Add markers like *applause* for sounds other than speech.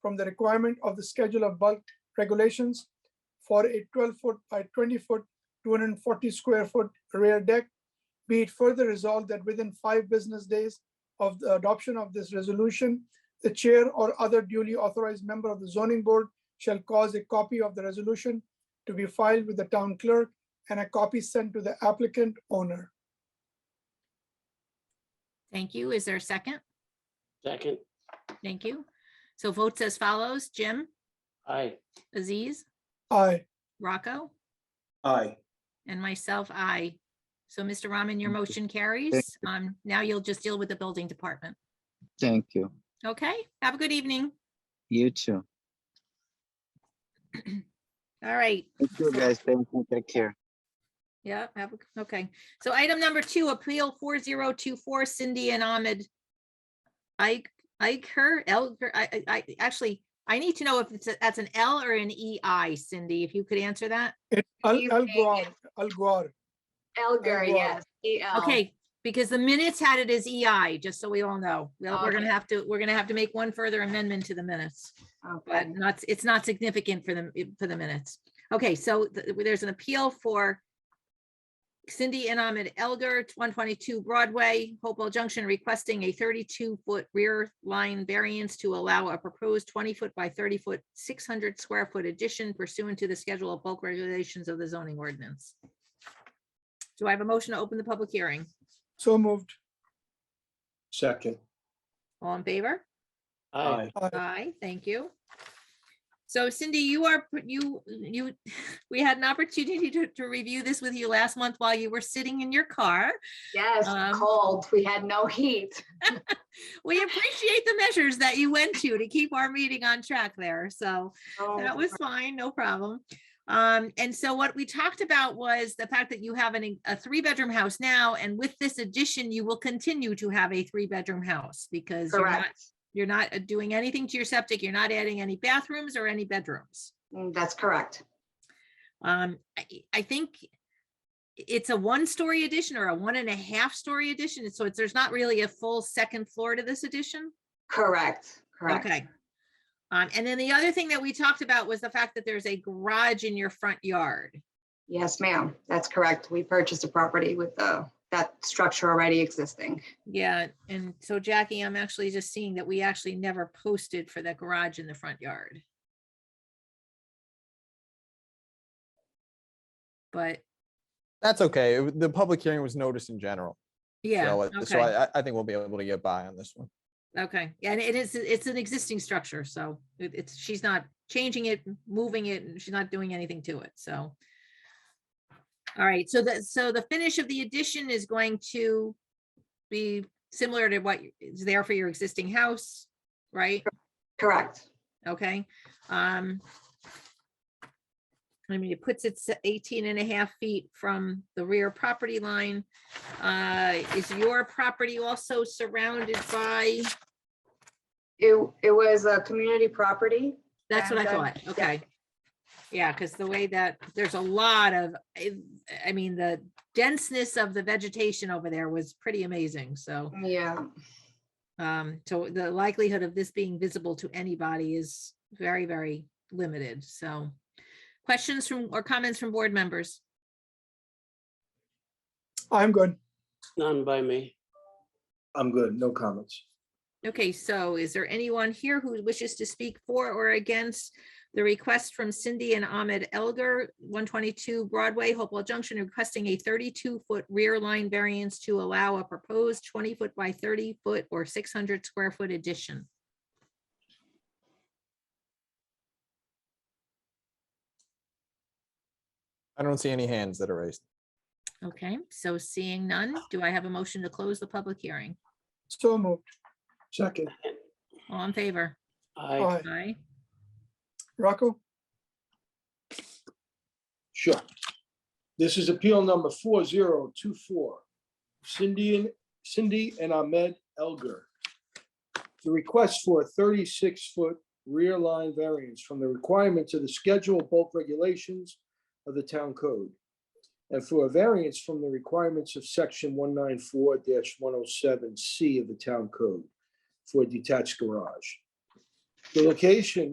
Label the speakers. Speaker 1: from the requirement of the schedule of bulk regulations for a 12-foot by 20-foot, 240-square-foot rear deck. Be it further resolved that within five business days of the adoption of this resolution, the chair or other duly authorized member of the zoning board shall cause a copy of the resolution to be filed with the town clerk and a copy sent to the applicant owner.
Speaker 2: Thank you. Is there a second?
Speaker 3: Second,
Speaker 2: Thank you. So votes as follows, Jim,
Speaker 3: aye.
Speaker 2: Aziz,
Speaker 1: Aye,
Speaker 2: Rocco,
Speaker 4: Aye.
Speaker 2: and myself, I. So Mr. Rahman, your motion carries. Um, now you'll just deal with the building department.
Speaker 5: Thank you.
Speaker 2: Okay, have a good evening.
Speaker 5: You too.
Speaker 2: All right.
Speaker 5: Thank you, guys. Thank you. Take care.
Speaker 2: Yeah, have, a- okay. So item number two, appeal four zero two four Cindy and Ahmed. Ike, Ike her, Elger, er, I, I, I- actually, I need to know if it's, a- that's an L or an E I, Cindy, if you could answer that.
Speaker 1: It- Al
Speaker 6: Evening.
Speaker 1: Al Gore, Al Gore. Elgar.
Speaker 6: Elgar, yes. E-L.
Speaker 2: Okay, because the minutes had it as E I, just so we all know. Well, we're gonna
Speaker 6: Okay.
Speaker 2: have to, we're gonna have to make one further amendment to the minutes. but
Speaker 6: Okay.
Speaker 2: not, it's not significant for them, for the minutes. Okay, so th- there's an appeal for Cindy and Ahmed Elgar, one twenty-two Broadway, Hopewell Junction, requesting a thirty-two foot rear line variance to allow a proposed twenty foot by thirty foot, six hundred square foot addition pursuant to the schedule of bulk regulations of the zoning ordinance. Do I have a motion to open the public hearing?
Speaker 1: So moved.
Speaker 4: Second.
Speaker 2: All in favor?
Speaker 3: Aye.
Speaker 2: Aye, thank you. So Cindy, you are, pr- you, you, *laughs* we had an opportunity to, to review this with you last month while you were sitting in your car.
Speaker 6: Yes,
Speaker 2: Um,
Speaker 6: cold. We had no heat.
Speaker 2: We appreciate the measures that you went to to keep our meeting on track there, so
Speaker 6: Oh,
Speaker 2: that was fine, no problem. Um, and so what we talked about was the fact that you have an, a three-bedroom house now, and with this addition, you will continue to have a three-bedroom house because you're not,
Speaker 6: Correct.
Speaker 2: you're not uh, doing anything to your septic, you're not adding any bathrooms or any bedrooms.
Speaker 6: Mm, That's correct.
Speaker 2: Um, I, I think it's a one-story addition or a one and a half story addition, so it's, there's not really a full second floor to this addition?
Speaker 6: Correct. Correct.
Speaker 2: Okay. Um, and then the other thing that we talked about was the fact that there's a garage in your front yard.
Speaker 6: Yes, ma'am. That's correct. We purchased a property with the, that structure already existing.
Speaker 2: Yeah, and so Jackie, I'm actually just seeing that we actually never posted for that garage in the front yard. But,
Speaker 7: That's okay. It- The public hearing was noticed in general.
Speaker 2: yeah,
Speaker 7: So it- so
Speaker 2: okay,
Speaker 7: I, I- I think we'll be able to get by on this one.
Speaker 2: okay. Yeah, And it is, it's an existing structure, so it- it's, she's not changing it, moving it, and she's not doing anything to it, so. All right, so that, so the finish of the addition is going to be similar to what is there for your existing house, right?
Speaker 6: Correct.
Speaker 2: Okay, um. I mean, it puts it s- 18 and a half feet from the rear property line. Uh, is your property also surrounded by,
Speaker 6: It, it was a community property.
Speaker 2: that's what I
Speaker 6: And, uh,
Speaker 2: thought, okay. Yeah, because the way that, there's a lot of, I I mean, the denseness of the vegetation over there was pretty amazing, so.
Speaker 6: Yeah,
Speaker 2: Um, so the likelihood of this being visible to anybody is very, very limited, so. Questions from, or comments from board members?
Speaker 1: I'm good.
Speaker 3: None by me.
Speaker 4: I'm good. No comments.
Speaker 2: Okay, so is there anyone here who wishes to speak for or against the request from Cindy and Ahmed Elgar, one twenty-two Broadway, Hopewell Junction, requesting a thirty-two foot rear line variance to allow a proposed twenty foot by thirty foot or six hundred square foot addition?
Speaker 7: I don't see any hands that are raised.
Speaker 2: Okay, so seeing none, do I have a motion to close the public hearing?
Speaker 1: So moved.
Speaker 4: Second.
Speaker 2: All in favor?
Speaker 3: Aye.
Speaker 1: Aye.
Speaker 2: Aye.
Speaker 1: Rocco?
Speaker 4: Sure. This is appeal number four zero two four. Cindy and Cindy and Ahmed Elgar. The request for a thirty-six foot rear line variance from the requirements of the schedule of bulk regulations of the town code. And for a variance from the requirements of section one nine four one oh seven C of the town code for a detached garage. The location